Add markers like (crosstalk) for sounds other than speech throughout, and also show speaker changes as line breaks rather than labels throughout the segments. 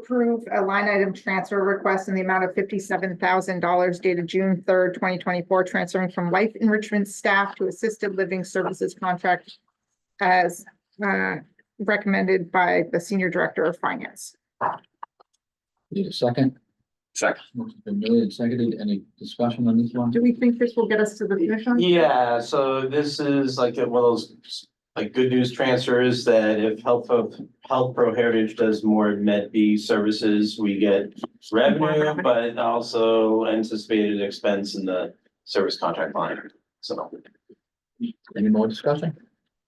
approve a line item transfer request in the amount of fifty-seven thousand dollars dated June third, twenty twenty-four, transferring from life enrichment staff to assisted living services contract as uh, recommended by the senior director of finance.
Need a second?
Second.
Motion's been made and seconded. Any discussion on this one?
Do we think this will get us to the finish line?
Yeah, so this is like one of those, like good news transfers that if Health of, Health Pro Heritage does more Med B services, we get revenue, but also anticipated expense in the service contract line, so.
Any more discussion?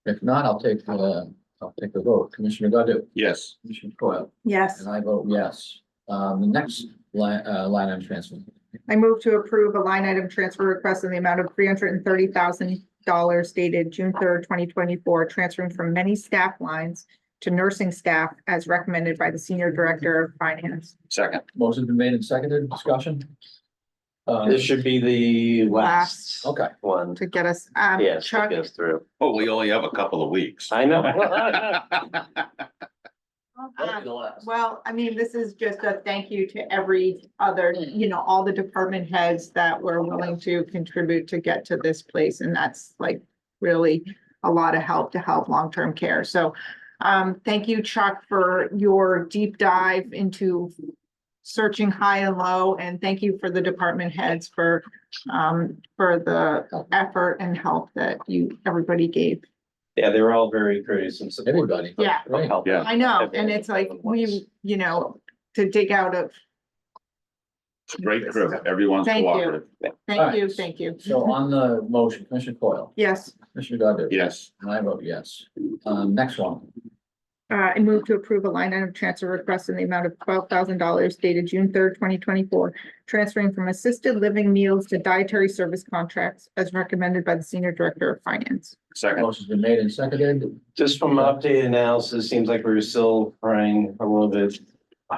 If not, I'll take, uh, I'll take the vote. Commissioner Godu?
Yes.
Commissioner Coyle?
Yes.
And I vote yes. Um, the next line, uh, line item transfer.
I move to approve a line item transfer request in the amount of three hundred and thirty thousand dollars dated June third, twenty twenty-four, transferring from many staff lines to nursing staff as recommended by the senior director of finance.
Second.
Motion's been made and seconded. Discussion? Uh,
This should be the last
okay.
one.
To get us, um,
Yes,
Chuck,
that goes through.
Oh, we only have a couple of
(laughs)
weeks.
I know.
(laughs) um, well, I mean, this is just a thank you to every other, you know, all the department heads that were willing to contribute to get to this place, and that's like really a lot of help to help long-term care. So um, thank you, Chuck, for your deep dive into searching high and low, and thank you for the department heads for um, for the effort and help that you, everybody gave.
Yeah, they were all very courteous and supportive.
Everybody.
Yeah.
of Health.
Yeah.
I know,
Everyone.
and it's like, we, you know, to dig out of,
Great crew. Everyone's
Thank you.
cooperative.
thank
Alright.
you, thank you.
So on the motion, Commissioner Coyle,
Yes,
Commissioner Godu?
Yes.
And I vote yes. Um, next one.
uh, I move to approve a line item transfer request in the amount of twelve thousand dollars dated June third, twenty twenty-four, transferring from assisted living meals to dietary service contracts as recommended by the senior director of finance.
Second.
Motion's been made and seconded.
Just from an updated analysis, seems like we were still running a little bit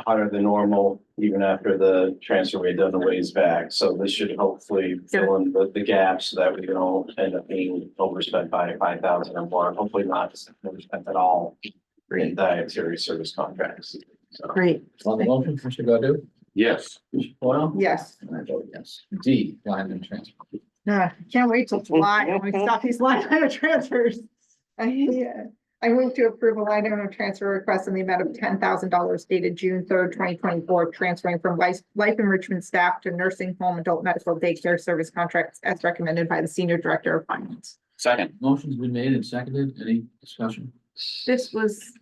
hotter than normal, even after the transfer we had done a ways back. So this should hopefully fill in the, the gaps so that we don't end up being overspent by five thousand or more, hopefully not overspent at all in dietary service contracts. So
Great.
On the motion, Commissioner Godu?
Yes.
Commissioner Coyle?
Yes,
And I vote yes. D, line item transfer.
Uh, can't wait till July, when we stop these line (laughs) item transfers. I uh, I move to approve a line item transfer request in the amount of ten thousand dollars dated June third, twenty twenty-four, transferring from life, life enrichment staff to nursing home adult medical daycare service contracts as recommended by the senior director of finance.
Second.
Motion's been made and seconded. Any discussion?
This was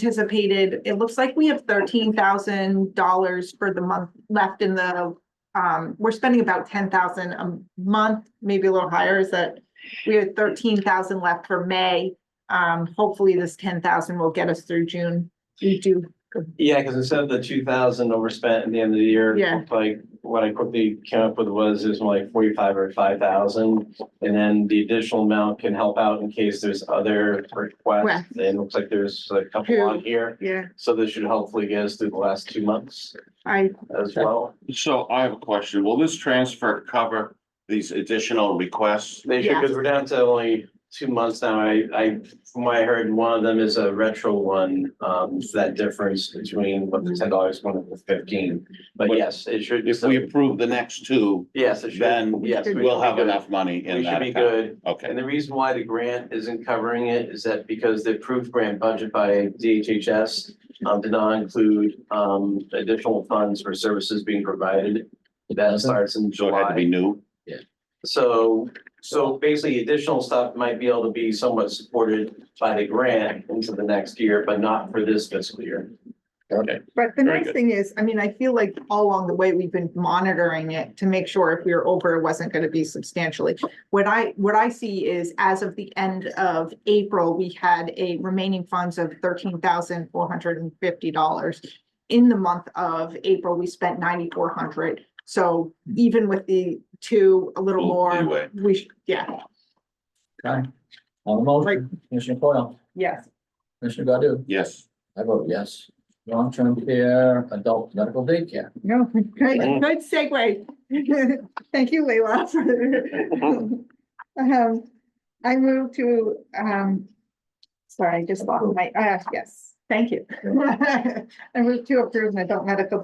anticipated, it looks like we have thirteen thousand dollars for the month left in the, um, we're spending about ten thousand a month, maybe a little higher, is that we have thirteen thousand left for May. Um, hopefully this ten thousand will get us through June. We do,
Yeah, because instead of the two thousand overspent at the end of the year.
Yeah.
Like, what I quickly came up with was, it was more like forty-five or five thousand. And then the additional amount can help out in case there's other requests,
Requests.
and it looks like there's a couple on here.
yeah,
So this should hopefully get us through the last two months
I,
as well.
So I have a question. Will this transfer cover these additional requests?
They should, because we're down to only two months now. I, I, from what I heard, one of them is a retro one. Um, that difference between what the ten dollars, one of the fifteen. But
But
yes, it should.
If we approve the next two,
Yes, it should.
then
Yes, we
we'll
should be
have
good.
enough money in
We should
that.
be
account.
good. And
Okay.
the reason why the grant isn't covering it is that because the approved grant budget by DHHS um, did not include um, additional funds for services being provided. That starts in
So it had to be
July.
new.
So, so basically additional stuff might be able to be somewhat supported by the grant into the next year, but not for this fiscal year.
Okay.
but the
Very
nice
good.
thing is, I mean, I feel like all along the way, we've been monitoring it to make sure if we were over, it wasn't gonna be substantially. What I, what I see is as of the end of April, we had a remaining funds of thirteen thousand four hundred and fifty dollars. In the month of April, we spent ninety-four hundred, so even with the two, a little
Ooh,
more,
E- anyway.
we, sh- yeah,
Okay. On the motion, Commissioner Coyle,
yes.
Commissioner Godu?
Yes.
I vote yes. Long-term care, adult medical daycare.
No, good, good segue. (laughs) Thank you, Leila. for- Um, I move to, um, sorry, I just lost my, uh, yes. (laughs) Thank you. I move to approve an adult medical